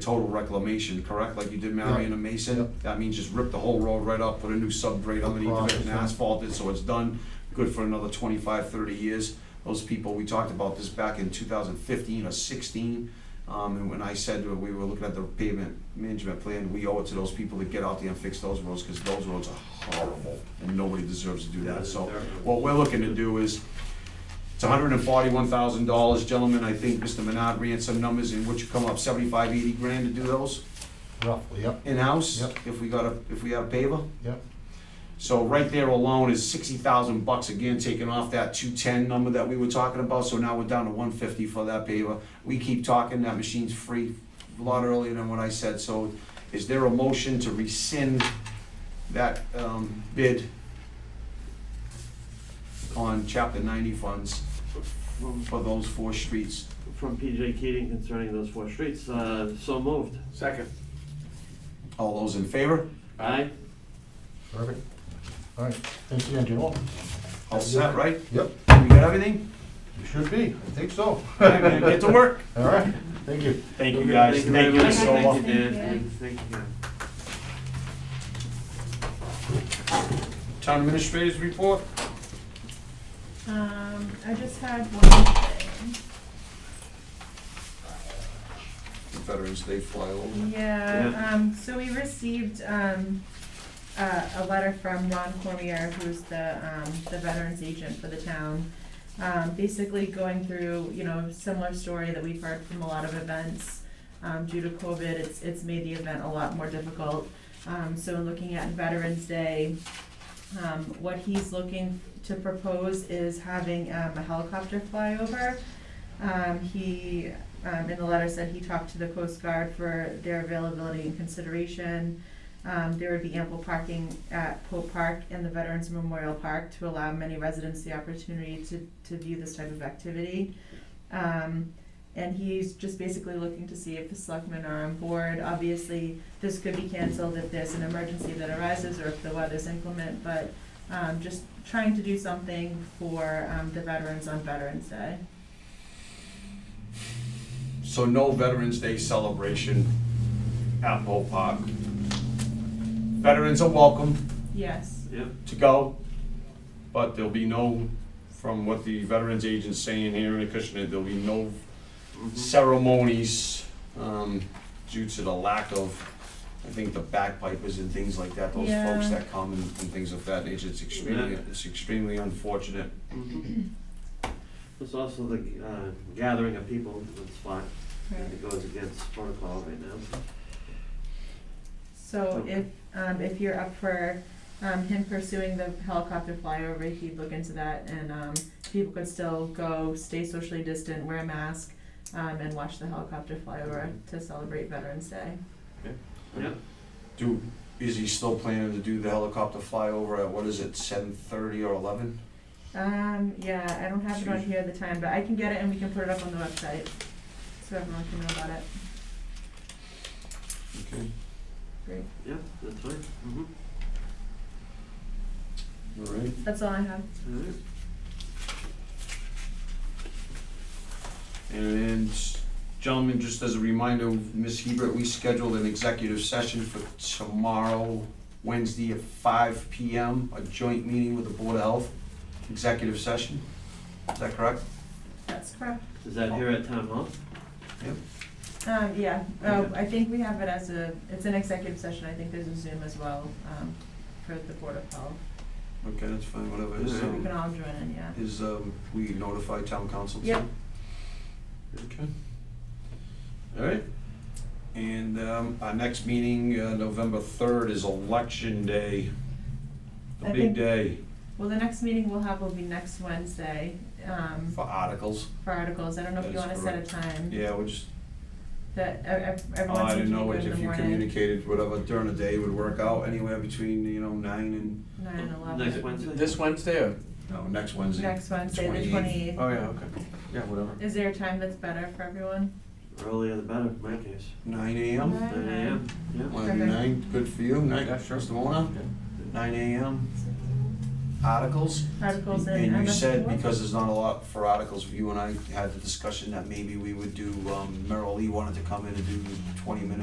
total reclamation, correct, like you did Marion and Mason? Yep. That means just rip the whole road right up, put a new subgrade underneath it Across, and yeah. asphalt it, so it's done, good for another 25, 30 years. Those people, we talked about this back in two thousand fifteen or sixteen, um, and when I said that we were looking at the pavement management plan, we owe it to those people to get out there and fix those roads, because those roads are horrible, and nobody deserves to do that, so. What we're looking to do is, it's hundred and forty-one thousand dollars, gentlemen, I think Mr. Menard ran some numbers in which you come up 75, 80 grand to do those Roughly, yep, in-house, Yep. if we got a, if we have a paver. yep. So right there alone is sixty thousand bucks again, taking off that two-ten number that we were talking about, so now we're down to one fifty for that paver. We keep talking, that machine's free, a lot earlier than what I said, so is there a motion to rescind that, um, bid on chapter ninety funds From for those four streets? from PJ Keating concerning those four streets, uh, so moved. Second. All those in favor? Aye? Perfect. All right, thanks again, Jim. All set, right? Yep, We got everything? you should be, I think so. All right, man, get to work. All right, thank you. Thank Okay, you, guys. very Thank you much. so much. Thank you, Dan. Thank you. Thank you. Town administrators report? Um, I just had one Veterans Day flyover. thing. Yeah, Yeah. um, so we received, um, a, a letter from Ron Cormier, who's the, um, the veterans agent for the town. Um, basically going through, you know, similar story that we've heard from a lot of events. Um, due to COVID, it's, it's made the event a lot more difficult. Um, so in looking at Veterans Day, um, what he's looking to propose is having, um, a helicopter flyover. Um, he, um, in the letter said he talked to the Coast Guard for their availability and consideration. Um, there would be ample parking at Pope Park and the Veterans Memorial Park to allow many residents the opportunity to, to view this type of activity. Um, and he's just basically looking to see if the selectmen are on board. Obviously, this could be canceled if there's an emergency that arises or if the weather's inclement, but, um, just trying to do something for, um, the veterans on Veterans Day. So no Veterans Day celebration at Bull Park. Veterans are welcome Yes. Yep, to go, but there'll be no, from what the Veterans Agent's saying here in Acushnet, there'll be no mhm, ceremonies um, due to the lack of, I think, the backpipers and things like that, those Yeah. folks that come and, and things of that nature. It's extremely, Yeah. it's extremely unfortunate. mhm. There's also the, uh, gathering of people that's fine, it goes against protocol right now. So if, um, if you're up for, um, him pursuing the helicopter flyover, he'd look into that and, um, people could still go, stay socially distant, wear a mask, um, and watch the helicopter flyover to celebrate Veterans Day. Yep, Do, is he still planning to do the helicopter flyover at, what is it, seven thirty or eleven? Um, yeah, I don't have it on here at the time, but I can get it and we can put it up on the website, so everyone can know about it. Okay. Great, yep, that's fine. Mhm. All right. that's all I have. All right. And gentlemen, just as a reminder, Ms. Hebert, we scheduled an executive session for tomorrow, Wednesday at five P M, a joint meeting with the Board of Health, executive session. Is that correct? That's correct. Is that here at town hall? Um, yeah, uh, Okay. I think we have it as a, it's an executive session, I think there's a Zoom as well, um, for the Board of Health. Okay, that's fine, whatever. Is, We um, can all join in, yeah. is, um, we notify town council? too? Yep. Okay. All right. And, um, our next meeting, uh, November third is election day. The I big think- day Well, the next meeting we'll have will be next Wednesday, um, for articles. for articles, I don't know if That you is wanna set a correct. time. Yeah, we just, That, e-, ev- ev- Oh, I everyone seems didn't to be know good in if the you morning, communicated whatever during the day would work out, anywhere between, you know, nine and, nine and eleven. Next Wednesday? This Wednesday or? no, next Wednesday. Next Wednesday, the 28th. 28th. Oh, yeah, okay. Yeah, whatever. Is there a time that's better for everyone? Earlier the better, in my case. Nine AM? Nine. Nine AM, Mm-hmm. yeah. Wanna do Okay. nine, good for you, nine, Yeah, sure. Mr. Mona? Nine AM, articles. articles and. And I'm you not said, sure. because there's not a lot for articles, you and I had the discussion that maybe we would do, um, Merrill Lee wanted to come in and do twenty minutes